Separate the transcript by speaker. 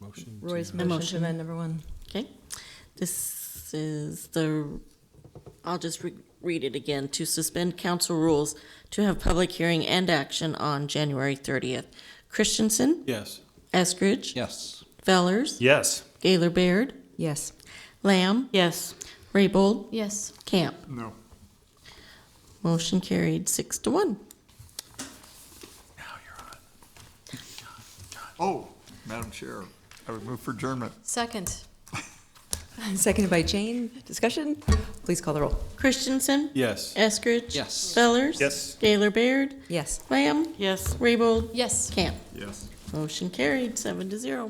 Speaker 1: motion to.
Speaker 2: Roy's
Speaker 1: amend.
Speaker 2: motion to
Speaker 3: Motion.
Speaker 2: amend number one.
Speaker 3: Okay, this is the, I'll just re- read it again. To suspend council rules to have public hearing and action on January 30th. Christensen,
Speaker 1: Yes.
Speaker 3: Eskridge,
Speaker 4: Yes.
Speaker 3: Fellers,
Speaker 1: Yes.
Speaker 3: Gaylor Baird,
Speaker 2: Yes.
Speaker 3: Lamb,
Speaker 5: Yes.
Speaker 3: Raybold,
Speaker 5: Yes.
Speaker 3: Camp.
Speaker 1: No.
Speaker 3: Motion carried six to one.
Speaker 4: Oh, Madam Chair, I would move for adjournment.
Speaker 5: Second.
Speaker 2: Seconded by Jane. Discussion? Please call the roll.
Speaker 3: Christensen,
Speaker 1: Yes.
Speaker 3: Eskridge.
Speaker 4: Yes.
Speaker 3: Fellers.
Speaker 1: Yes.
Speaker 3: Gaylor Baird,
Speaker 2: Yes.
Speaker 3: Lamb,
Speaker 5: Yes.
Speaker 3: Raybold,
Speaker 5: Yes.
Speaker 3: Camp.
Speaker 4: Yes.
Speaker 3: Motion carried seven to zero.